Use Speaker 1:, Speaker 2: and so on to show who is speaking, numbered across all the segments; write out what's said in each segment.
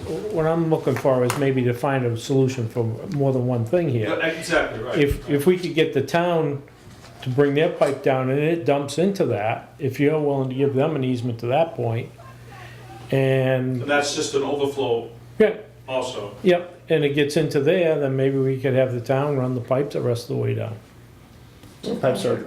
Speaker 1: what I'm looking for is maybe to find a solution for more than one thing here.
Speaker 2: Yeah, Exactly, right.
Speaker 1: If, if we could get the town to bring their pipe down and it dumps into that, if you're willing to give them an easement to that point,
Speaker 2: And
Speaker 1: and,
Speaker 2: that's just an overflow
Speaker 1: yeah,
Speaker 2: also.
Speaker 1: yep, and it gets into there, then maybe we could have the town run the pipe the rest of the way down.
Speaker 3: Pipe sort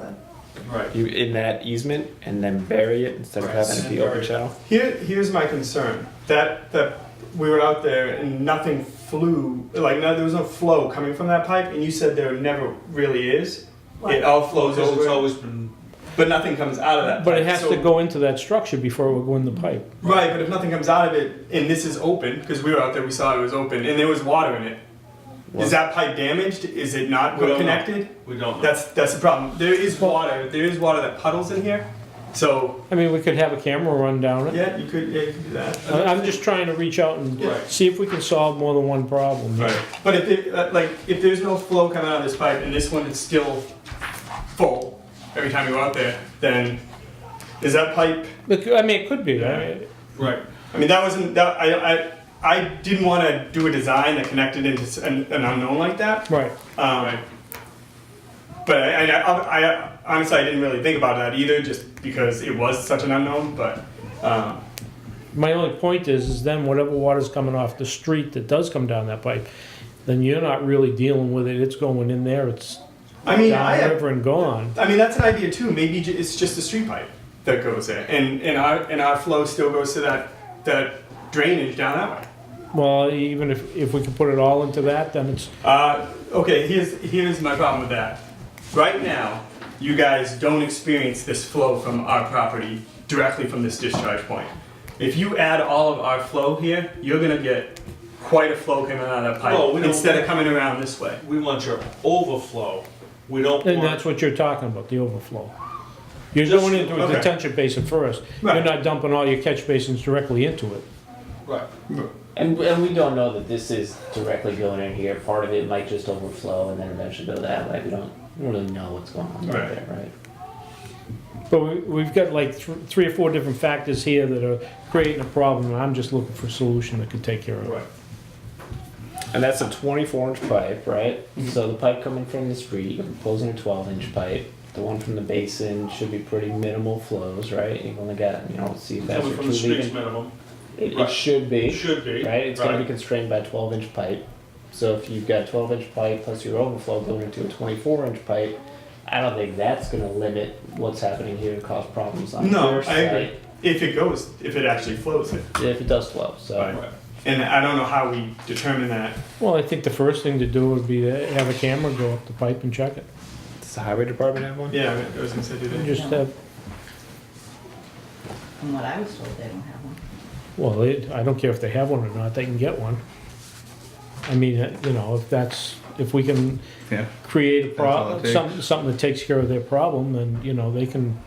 Speaker 2: Right.
Speaker 3: you in that easement and then bury it instead of
Speaker 2: Right,
Speaker 3: having it be
Speaker 2: bury
Speaker 3: open
Speaker 2: it.
Speaker 3: channel.
Speaker 4: Here, here's my concern. That that we were out there and nothing flew, like no, there was no flow coming from that pipe, and you said there never really is. It all flows
Speaker 2: Because it's
Speaker 4: over,
Speaker 2: always been,
Speaker 4: but nothing comes out of that.
Speaker 1: But it
Speaker 4: pipe.
Speaker 1: has
Speaker 4: So-
Speaker 1: to go into that structure before it would go in the pipe.
Speaker 4: right. But if nothing comes out of it, and this is open, because we were out there, we saw it was open, and there was water in it. Is
Speaker 3: Well-
Speaker 4: that pipe damaged? Is it not
Speaker 2: We don't know.
Speaker 4: connected?
Speaker 2: we don't know.
Speaker 4: That's that's the problem. There is water. There is water that puddles in here. So
Speaker 1: I mean, we could have a camera run down it.
Speaker 4: yeah, you could yeah, you could do that.
Speaker 1: I- I'm just trying to reach out and
Speaker 2: Right.
Speaker 1: see if we can solve more than one problem.
Speaker 2: Right.
Speaker 4: But if it, uh, like if there's no flow coming out of this pipe and this one is still full every time you go out there, then is that pipe?
Speaker 1: Look, I mean, it could be, I mean,
Speaker 2: Right.
Speaker 4: I mean, that wasn't that I I, I didn't want to do a design that connected into s- an, an unknown like that.
Speaker 1: right.
Speaker 4: Um,
Speaker 2: Right.
Speaker 4: But I, I, I honestly I didn't really think about that either, just because it was such an unknown. But um,
Speaker 1: My only point is, is then whatever water's coming off the street that does come down that pipe, then you're not really dealing with it, it's going in there, it's
Speaker 4: I mean, I have
Speaker 1: downriver and gone.
Speaker 4: I mean, that's an idea too. Maybe j- it's just a street pipe that goes there, and and our and our flow still goes to that that drainage down that way.
Speaker 1: Well, even if, if we could put it all into that, then it's,
Speaker 4: Uh, okay, here's here's my problem with that. Right now, you guys don't experience this flow from our property directly from this discharge point. If you add all of our flow here, you're gonna get quite a flow coming out of that pipe
Speaker 2: Well, Oh, we don't-
Speaker 4: instead of coming around this way.
Speaker 2: We want your overflow. We don't
Speaker 1: and that's
Speaker 2: want,
Speaker 1: what you're talking about, the overflow. You're
Speaker 2: Just-
Speaker 1: going into a
Speaker 4: okay.
Speaker 1: detention basin first, you're
Speaker 4: Right.
Speaker 1: not dumping all your catch basins directly into it.
Speaker 2: right.
Speaker 5: And, and we don't know that this is directly going in here. Part of it might just overflow and then eventually go that way. We don't really know what's going on right.
Speaker 4: Right.
Speaker 5: there, right?
Speaker 1: But we, we've got like th- three or four different factors here that are creating a problem, and I'm just looking for a solution that could take care of it.
Speaker 3: And that's a 24 inch pipe.
Speaker 5: Pipe, right? So the pipe coming from the street, you're proposing a 12 inch pipe. The one from the basin should be pretty minimal flows, right? You've only got, you know, see if that's
Speaker 2: Coming
Speaker 5: your
Speaker 2: from the
Speaker 5: two
Speaker 2: streets
Speaker 5: leading.
Speaker 2: minimum.
Speaker 5: It, it
Speaker 2: Right.
Speaker 5: should be.
Speaker 2: It should be.
Speaker 5: right? It's going to be constrained by a 12 inch pipe. So if you've got a 12 inch pipe plus your overflow going into a 24 inch pipe, I don't think that's going to limit what's happening here and cause problems on
Speaker 4: No,
Speaker 5: your
Speaker 4: I
Speaker 5: side
Speaker 4: agree. If it goes, if it actually flows it,
Speaker 5: if it does flow. So
Speaker 4: Right. and I don't know how we determine that.
Speaker 1: Well, I think the first thing to do would be to have a camera go up the pipe and check it.
Speaker 3: Does the highway department have one?
Speaker 4: Yeah, I was gonna say do that.
Speaker 1: And just have,
Speaker 6: From what I was told, they don't have one.
Speaker 1: well, it, I don't care if they have one or not, they can get one. I mean, uh, you know, if that's, if we can
Speaker 7: Yeah.
Speaker 1: create a
Speaker 7: all it
Speaker 1: problem,
Speaker 7: takes.
Speaker 1: something, something that takes care of their problem, then, you know, they can,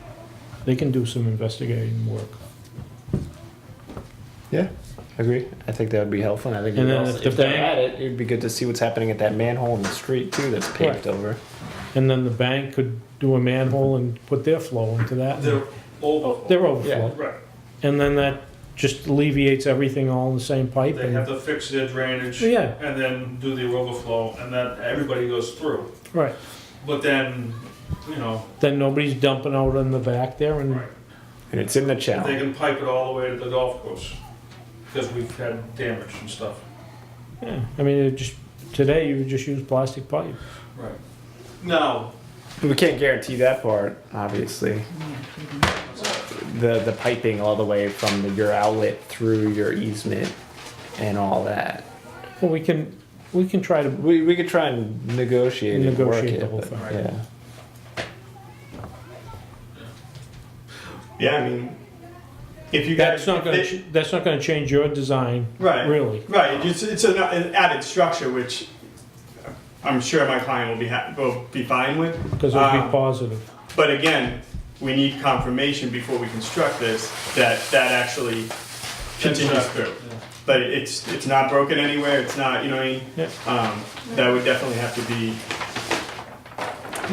Speaker 1: they can do some investigating work.
Speaker 3: Yeah, I agree. I think that would be helpful. And I think
Speaker 1: And
Speaker 3: it
Speaker 1: then
Speaker 3: would
Speaker 1: if
Speaker 3: also,
Speaker 1: the
Speaker 3: if they're
Speaker 1: bank-
Speaker 3: at it, it would be good to see what's happening at that manhole in the street too that's paved over.
Speaker 1: And then the bank could do a manhole and put their flow into that.
Speaker 2: They're overflow.
Speaker 1: Their overflow.
Speaker 3: Yeah.
Speaker 2: Right.
Speaker 1: And then that just alleviates everything all in the same pipe.
Speaker 2: They
Speaker 1: and-
Speaker 2: have to fix their drainage.
Speaker 1: Yeah.
Speaker 2: And then do the overflow and then everybody goes through.
Speaker 1: Right.
Speaker 2: But then, you know,
Speaker 1: Then nobody's dumping out in the back there and,
Speaker 2: right.
Speaker 3: And it's in the channel.
Speaker 2: They can pipe it all the way to the golf course. Because we've had damage and stuff.
Speaker 1: yeah, I mean, it just, today you would just use plastic pipe.
Speaker 2: Right. Now,
Speaker 3: We can't guarantee that part, obviously. The the piping all the way from the, your outlet through your easement and all that.
Speaker 1: Well, we can, we can try to,
Speaker 3: We, we could try and negotiate,
Speaker 1: Negotiate
Speaker 3: and work
Speaker 1: the
Speaker 3: it,
Speaker 1: whole
Speaker 3: but,
Speaker 1: thing.
Speaker 3: Yeah.
Speaker 4: Yeah, I mean, if you guys,
Speaker 1: that's not gonna, ch- that's not gonna change your design,
Speaker 4: right,
Speaker 1: really.
Speaker 4: right. It's it's an, an added structure which I'm sure my client will be ha- will be fine with.
Speaker 1: Cause it would be
Speaker 4: Um,
Speaker 1: positive.
Speaker 4: But again, we need confirmation before we construct this that that actually continues
Speaker 2: That's
Speaker 4: through. But it's it's not broken anywhere. It's not you know what I mean.
Speaker 1: Yeah.
Speaker 4: Um, that would definitely have to be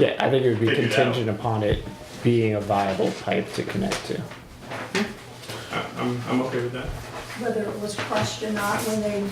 Speaker 3: Yeah, I think it would be
Speaker 4: Figure it out.
Speaker 3: contingent upon it being a viable pipe to connect to.
Speaker 4: I- I'm, I'm okay with that.
Speaker 7: whether it was crushed or not when they